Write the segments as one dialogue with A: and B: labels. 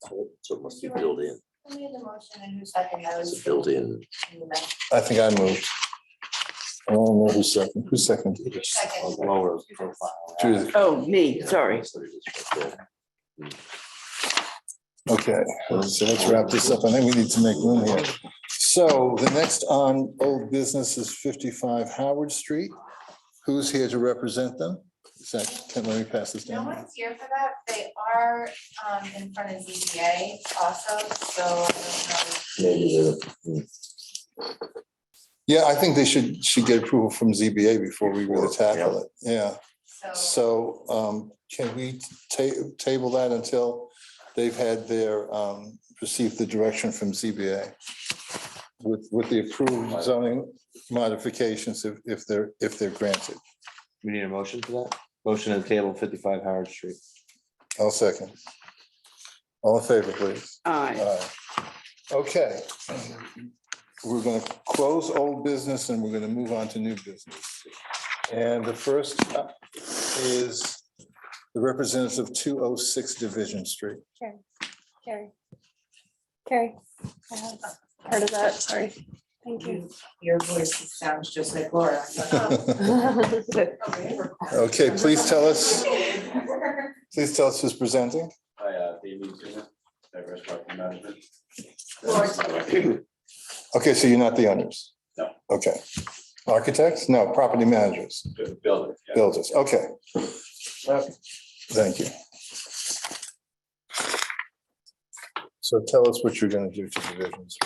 A: So so it must be built in,
B: Who made the motion and who seconded that?
A: it's built in.
B: in the minute?
C: I think I moved. I don't know who's second, who's second?
B: Second.
A: Lower profile.
C: Judith.
D: Oh, me, sorry.
C: Okay, so let's wrap this up. I think we need to make room here. So the next on old business is fifty-five Howard Street. Who's here to represent them? Is that, can let me pass this
B: No
C: down?
B: one's here for that. They are um in front of ZBA also, so I don't know.
A: Maybe they're-
C: Yeah, I think they should, should get approval from ZBA before we really tackle it. Yeah.
B: So
C: So um, can we ta- table that until they've had their, um, received the direction from ZBA? With, with the approved zoning modifications if, if they're, if they're granted.
E: We need a motion for that? Motion to table fifty-five Howard Street.
C: I'll second. All in favor, please.
D: Aye.
C: Aye. Okay. We're gonna close old business and we're gonna move on to new business. And the first up is the representative of two oh six Division Street.
F: Carrie. Carrie, I have part of that, sorry. Thank you.
B: your voice sounds just like Laura.
C: Okay, please tell us, please tell us who's presenting.
G: Hi, uh, David Zuma, Diverse Property Management.
C: Okay, so you're not the owners?
G: No.
C: Okay. Architects? No, property managers,
G: Bu- Builder, yeah.
C: builders, okay. Thank you. So tell us what you're gonna do to divisions.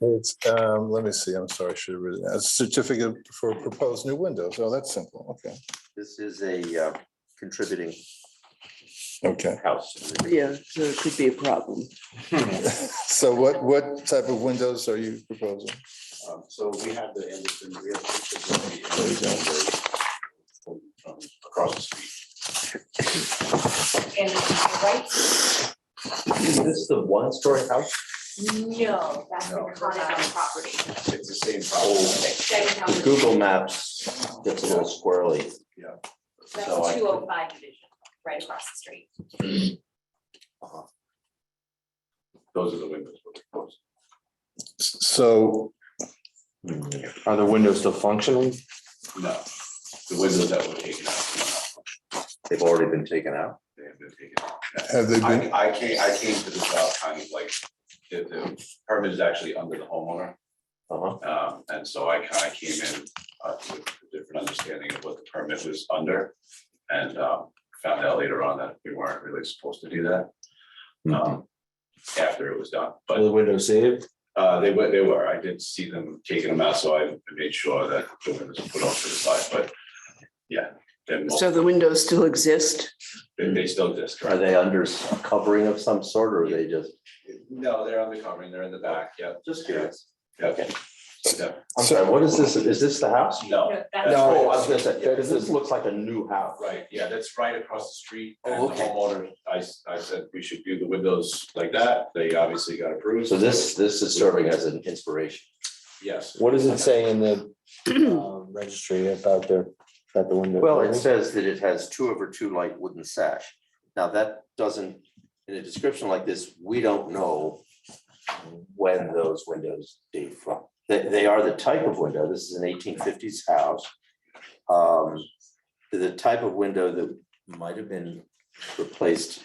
C: It's, um, let me see, I'm sorry, I should have written, a certificate for proposed new windows. Oh, that's simple, okay,
A: This is a uh, contributing
C: okay.
A: house.
D: Yeah, so it could be a problem.
C: So what, what type of windows are you proposing?
G: Um, So we have the Anderson, we have pictures of the Anderson from- from across the street.
B: And right?
A: Is this the one-story house?
B: No, that's the
G: No.
B: Conestoga property.
G: It's the same problem.
B: Same
A: Oh, The
B: number.
A: Google Maps gets a little squirrely. so I-
B: That's two oh five division, right across the street.
G: Those are the windows we're proposing.
C: So,
E: Are the windows still functioning?
G: No, the windows that were taken out.
A: They've already been taken out.
G: They have been taken out.
C: have they been,
G: I, I came, I came to this out kind of like, the, the permit is actually under the homeowner.
A: Uh-huh.
G: Um, and so I kind of came in uh, with a different understanding of what the permit was under. And um, found out later on that we weren't really supposed to do that.
A: Mm-hmm.
G: um, After it was done,
E: Are
G: but
E: the windows saved?
G: uh, they were, they were, I did see them taking them out, so I made sure that the windows were put off to the side, but. Yeah, they're mo-
D: So the windows still exist?
G: they they still exist,
A: Are
G: correct?
A: they under s- covering of some sort or are they just,
G: No, they're on the covering, they're in the back, yeah.
A: just curious?
G: Yeah,
A: Okay.
G: yeah.
A: I'm sorry, what is this? Is this the house?
G: No,
B: that's-
A: No, I was gonna say, because this looks like a new house.
G: Right, yeah, that's right across the street.
A: Oh,
G: And the
A: okay.
G: homeowner, I, s- I said we should view the windows like that. They obviously got approved.
A: So this, this is serving as an inspiration.
G: Yes,
E: What does it say in the um, registry about their, about the window?
A: Well, it says that it has two over two light wooden sash. Now, that doesn't, in a description like this, we don't know when those windows date from. They, they are the type of window, this is an eighteen fifties house. Um, The type of window that might have been replaced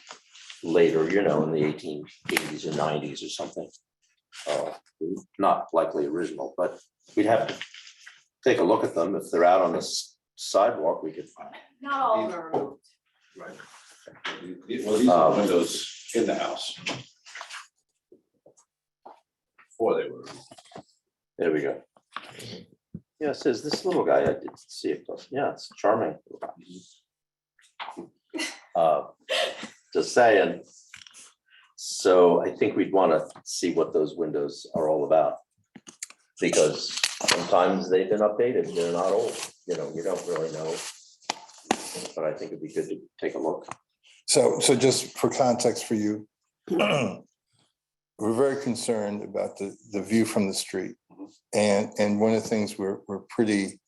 A: later, you know, in the eighteen eighties or nineties or something. Uh, Not likely original, but we'd have to take a look at them. If they're out on the s- sidewalk, we could find.
B: Not all of them are removed.
G: right. Well, these
A: Um,
G: are the windows in the house. Before they were.
A: There we go. Yeah, it says this little guy, I didn't see it, but yeah, it's charming. Uh, Just saying. So I think we'd want to see what those windows are all about. Because sometimes they've been updated, they're not old, you know, you don't really know. But I think it'd be good to take a look.
C: so, so just for context for you. We're very
E: Mm-hmm.
C: concerned about the, the view from the street. And, and one of the things we're, we're pretty